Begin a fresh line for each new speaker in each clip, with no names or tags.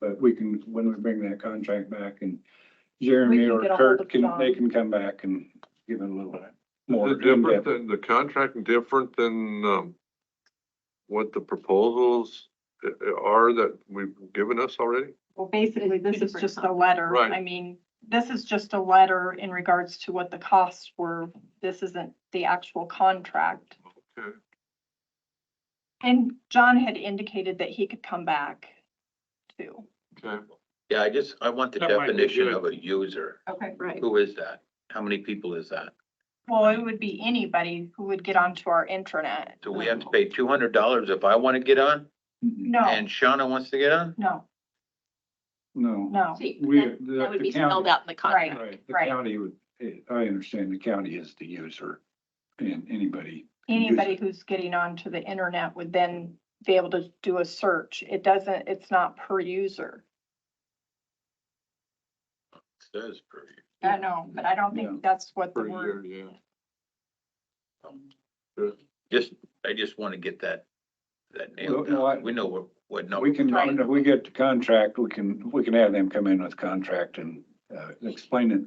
but we can, when we bring that contract back and
We
Jeremy
can
or
get a hold
Kurt
of
can,
John.
they can come back and give it a little more.
Is it different than, the contract different than, um, what the proposals i- i- are that we've given us already?
Well, basically, this is
Different
just a letter.
Right.
I mean, this is just a letter in regards to what the costs were. This isn't the actual contract.
Okay.
And John had indicated that he could come back too.
Okay.
Yeah, I just, I want the
That might be
definition
good.
of a user.
Okay.
Right.
Who is that? How many people is that?
Well, it would be anybody who would get onto our intranet.
Do we have to pay two hundred dollars if I want to get on
Mhm.
No,
and Shauna wants to get on?
no,
No,
no.
See,
we,
that-
the
That would
the
be spelled
county,
out in the contract.
right, the
Right.
county would, eh, I understand the county is the user and anybody. can use
Anybody
it.
who's getting onto the internet would then be able to do a search. It doesn't, it's not per user.
It Says per user.
I know, but I don't
Yeah.
think that's what the
Per
word.
year, yeah.
Um,
Just, I just want to get that, that nailed
No, no, I-
down. We know what, what number.
We can,
Right.
if we get the contract, we can, we can have them come in with contract and uh, explain it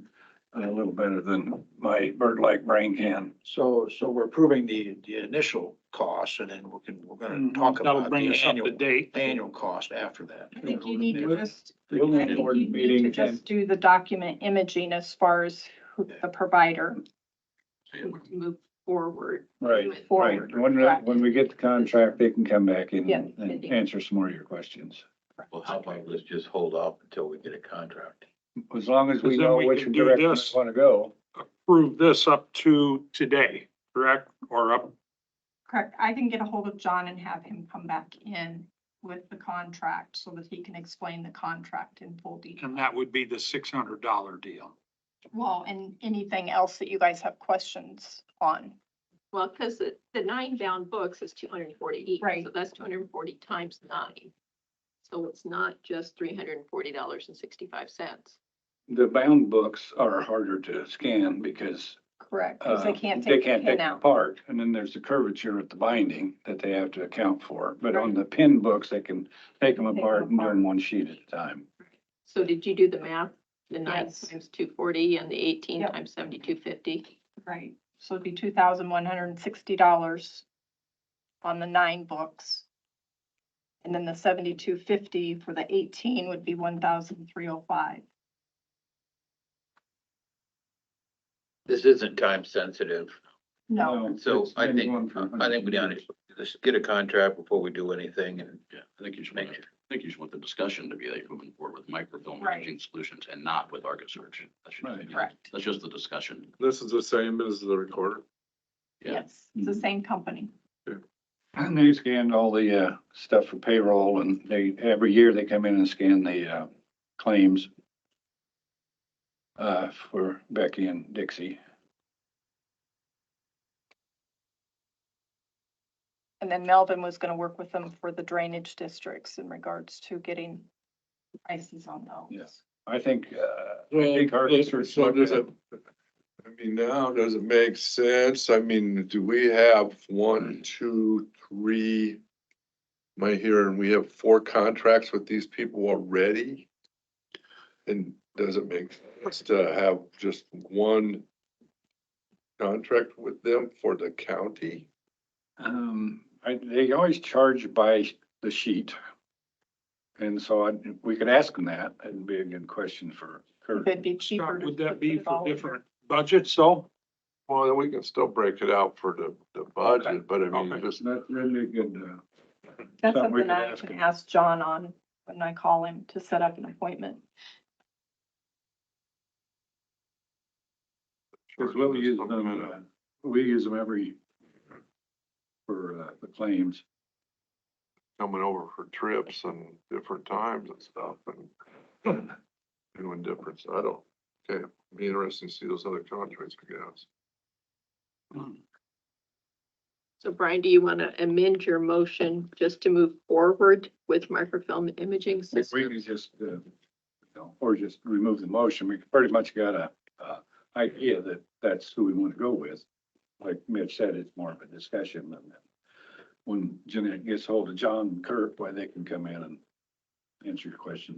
a little better than my bird-like brain can.
So, so we're approving the, the initial costs and then we can, we're gonna
Mhm.
talk
Mm-hmm. That'll
about
bring
the
us up to
annual,
date.
annual cost after that.
I think you need to just,
We'll
I
need a
think
board
you need to
meeting and
just do the document imaging as far as who the provider.
Move forward.
Right,
with-
right. When,
Correct.
when we get the contract, they can come back in
Yeah.
and answer some more of your questions.
Well, how about let's just hold off until we get a contract?
As long as we
Because then
know
we
which
can do
direction we
this.
want to go.
Prove this up to today, correct? Or up,
Correct. I can get a hold of John and have him come back in with the contract so that he can explain the contract in full detail.
and that would be the six hundred dollar deal.
Well, and anything else that you guys have questions on.
Well, because the, the nine bound books is two hundred and forty each.
Right.
So that's two hundred and forty times nine. So it's not just three hundred and forty dollars and sixty-five cents.
The bound books are harder to scan because
Correct. Because
uh,
they can't take the
take
pin
the
out.
Part, and then there's the curvature at the binding that they have to account for. But on the pin books, they can take them
Take 'em
apart and
apart.
learn one sheet at a time.
So did you do the math? The nine
Yes.
times two forty and the eighteen
Yep.
times seventy-two fifty?
Right. So it'd be two thousand one hundred and sixty dollars on the nine books. And then the seventy-two fifty for the eighteen would be one thousand three oh five.
This isn't time sensitive,
No,
so
it's
I
been going
think,
for
I think
100
we down,
years.
let's get a contract before we do anything and
Yeah, I think you just want,
make
I
sure.
think you just want the discussion to be like moving forward with microfilm
Right.
imaging solutions and not with Argus search. That should just
Right.
be-
Correct.
That's just the discussion.
This is the same as the recorder.
Yeah.
yes, it's
Mm-hmm.
the same company.
And they scanned all the uh, stuff for payroll and they, every year they come in and scan the uh, claims uh, for Becky and Dixie.
And then Melvin was gonna work with them for the drainage districts in regards to getting prices on those.
Yes. I think, uh, think our research
So
looked
does
at-
it, I mean, now, does it make sense? I mean, do we have one, two, three? Am I hearing we have four contracts with these people already? And does it make sense to have just one contract with them for the county?
um, I- they always charge by the sheet. And so I, we could ask them that. It'd be a good question for Kurt.
Could be cheaper.
Scott,
to
Would
put
that be
it all
for
in.
different budgets though?
Well, then we can still break it out for the, the budget, but I mean,
Okay.
just,
That's really good. uh,
That's
something we
something
could
I
ask
can
him.
ask John on when I call him to set up an appointment.
Because we'll use them, uh, we use them every for uh, the claims.
coming over for trips and different times and stuff and doing different, I don't, okay, be interesting to see those other contracts, I guess.
So Brian, do you want to amend your motion just to move forward with microfilm imaging
We we
systems?
can just, uh, you know, or just remove the motion. We pretty much got a, uh, idea that that's who we want to go with. Like Mitch said, it's more of a discussion than that. When Jeanette gets hold of John and Kirk, why they can come in and answer your questions.